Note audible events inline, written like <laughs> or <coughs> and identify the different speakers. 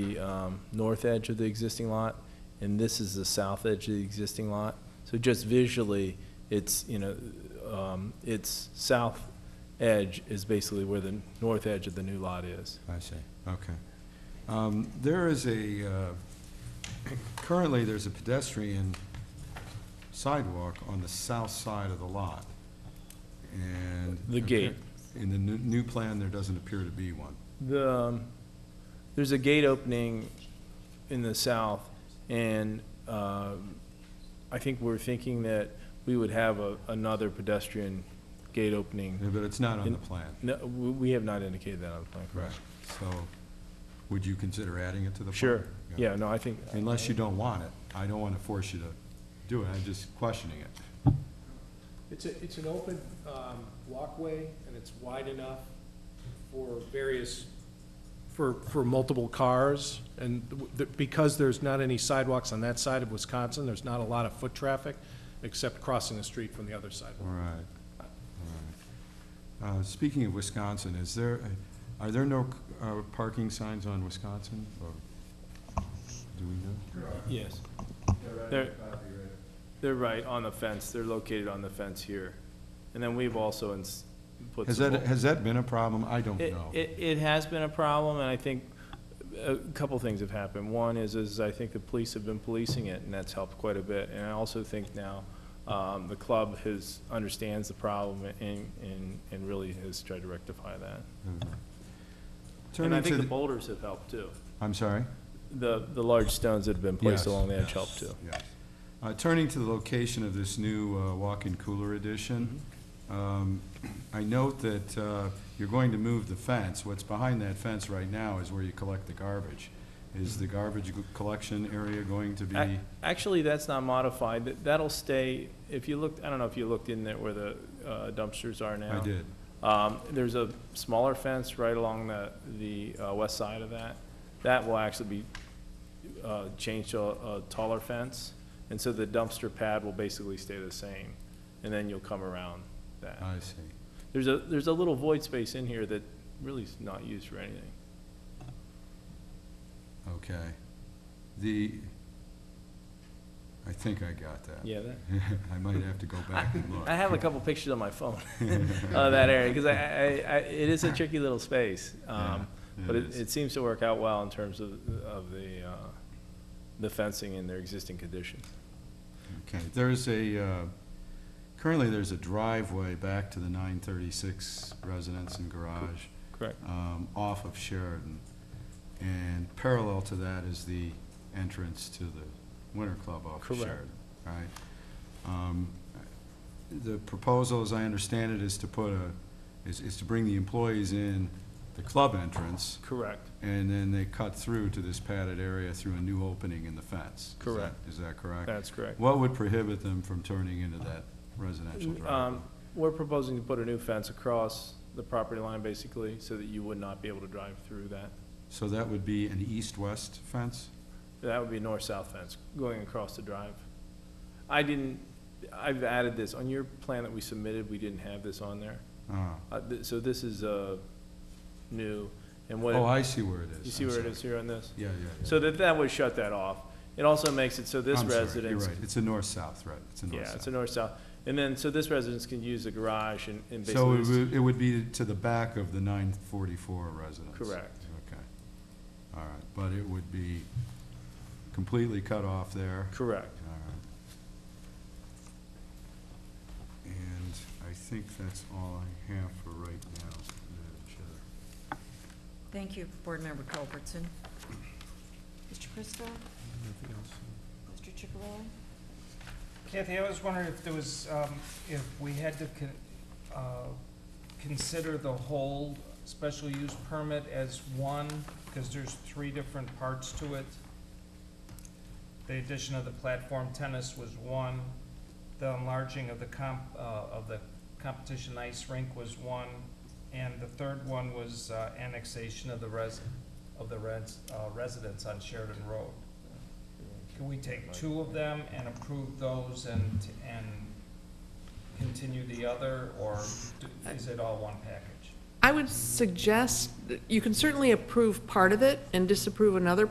Speaker 1: the um, north edge of the existing lot, and this is the south edge of the existing lot. So just visually, it's, you know, um, its south edge is basically where the north edge of the new lot is.
Speaker 2: I see, okay. Um, There is a, uh, <coughs> currently, there's a pedestrian sidewalk on the south side of the lot, and...
Speaker 1: The gate.
Speaker 2: In the new- new plan, there doesn't appear to be one.
Speaker 1: The, um, there's a gate opening in the south, and um, I think we're thinking that we would have a- another pedestrian gate
Speaker 2: Yeah,
Speaker 1: opening.
Speaker 2: But it's not on the plan.
Speaker 1: No, we we have not indicated that on the plan.
Speaker 2: Right.
Speaker 1: correct?
Speaker 2: So, would you consider adding it to the plan?
Speaker 1: Sure, yeah, no, I think.
Speaker 2: Unless you don't want it. I don't want to force you to do it, I'm just questioning it.
Speaker 3: It's a, it's an open um, walkway, and it's wide enough for various, for, for multiple cars. And w- the- because there's not any sidewalks on that side of Wisconsin, there's not a lot of foot traffic, except crossing the street from the other side.
Speaker 2: All right, all right. Uh, Speaking of Wisconsin, is there, are there no uh, parking signs on Wisconsin, or do we know?
Speaker 1: Yes. They're, they're right on the fence, they're located on the fence here. And then we've also ins- put
Speaker 2: Has
Speaker 1: some.
Speaker 2: that, has that been a problem? I don't
Speaker 1: It,
Speaker 2: know.
Speaker 1: it, it has been a problem, and I think a couple things have happened. One is, is I think the police have been policing it, and that's helped quite a bit. And I also think now, um, the club has, understands the problem and, and, and really has tried to rectify that. And I
Speaker 2: Turning to,
Speaker 1: think the
Speaker 2: the-
Speaker 1: boulders have helped too.
Speaker 2: I'm sorry?
Speaker 1: The, the large stones that have been placed
Speaker 2: Yes,
Speaker 1: along the edge
Speaker 2: yes,
Speaker 1: helped too.
Speaker 2: yes. Uh, Turning to the location of this new uh, walk-in cooler addition,
Speaker 1: Mm-hmm.
Speaker 2: um, I note that uh, you're going to move the fence. What's behind that fence right now is where you collect the garbage. Is the garbage g- collection area going to be?
Speaker 1: Ac- Actually, that's not modified, That- that'll stay, if you looked, I don't know if you looked in there where the uh, dumpsters are now.
Speaker 2: I did.
Speaker 1: Um, There's a smaller fence right along the, the uh, west side of that. That will actually be uh, changed to a a taller fence, and so the dumpster pad will basically stay the same, and then you'll come around that.
Speaker 2: I see.
Speaker 1: There's a, there's a little void space in here that really is not used for anything.
Speaker 2: Okay. The, I think I got that.
Speaker 1: Yeah, that,
Speaker 2: <laughs> I might have to go back and
Speaker 1: <laughs>
Speaker 2: look.
Speaker 1: I have a couple pictures on my phone <laughs> of that area, because I, I, I, it is a tricky little space. um,
Speaker 2: Yeah, it
Speaker 1: But it,
Speaker 2: is.
Speaker 1: it seems to work out well in terms of, of the, uh, the fencing and their existing condition.
Speaker 2: Okay, there's a, uh, currently there's a driveway back to the 936 residence and garage
Speaker 1: Correct.
Speaker 2: um, off of Sheridan. And parallel to that is the entrance to the Winter Club off of
Speaker 1: Correct.
Speaker 2: Sheridan, right? Um, The proposal, as I understand it, is to put a, is, is to bring the employees in the club entrance,
Speaker 1: Correct.
Speaker 2: and then they cut through to this padded area through a new opening in the fence. Is that-
Speaker 1: Correct.
Speaker 2: Is that correct?
Speaker 1: That's correct.
Speaker 2: What would prohibit them from turning into that residential driveway?
Speaker 1: Um, We're proposing to put a new fence across the property line, basically, so that you would not be able to drive through that.
Speaker 2: So that would be an east-west fence?
Speaker 1: That would be a north-south fence going across the drive. I didn't, I've added this, on your plan that we submitted, we didn't have this on there.
Speaker 2: Ah.
Speaker 1: Uh, th- So this is uh, new, and
Speaker 2: Oh,
Speaker 1: what,
Speaker 2: I see where it is.
Speaker 1: you see
Speaker 2: I'm
Speaker 1: where it
Speaker 2: sorry.
Speaker 1: is here on this?
Speaker 2: Yeah, yeah, yeah.
Speaker 1: So that, that would shut that off. It also makes it so this
Speaker 2: I'm sorry,
Speaker 1: residence.
Speaker 2: You're right, it's a north-south, right, it's a
Speaker 1: Yeah, it's
Speaker 2: north-south.
Speaker 1: a north-south. And then, so this residence can use the garage and and
Speaker 2: So it
Speaker 1: basically,
Speaker 2: would, it would be to the back of the nine forty-four residence?
Speaker 1: Correct.
Speaker 2: Okay, all right, but it would be completely cut off there?
Speaker 1: correct.
Speaker 2: All right. And I think that's all I have for right now, Madam Chair.
Speaker 4: Thank you, Board Member Culbertson. Mr. Christo? Mr. Chicarelli?
Speaker 5: Kathy, I was wondering if there was, um, if we had to con- uh, consider the whole special use permit as one, because there's three different parts to it. The addition of the platform tennis was one, the enlarging of the comp, uh, of the competition ice rink was one, and the third one was uh, annexation of the res, of the res, uh, residents on Sheridan Road. Can we take two of them and approve those and, and continue the other, or do- is it all one package?
Speaker 6: I would suggest, that you can certainly approve part of it and disapprove another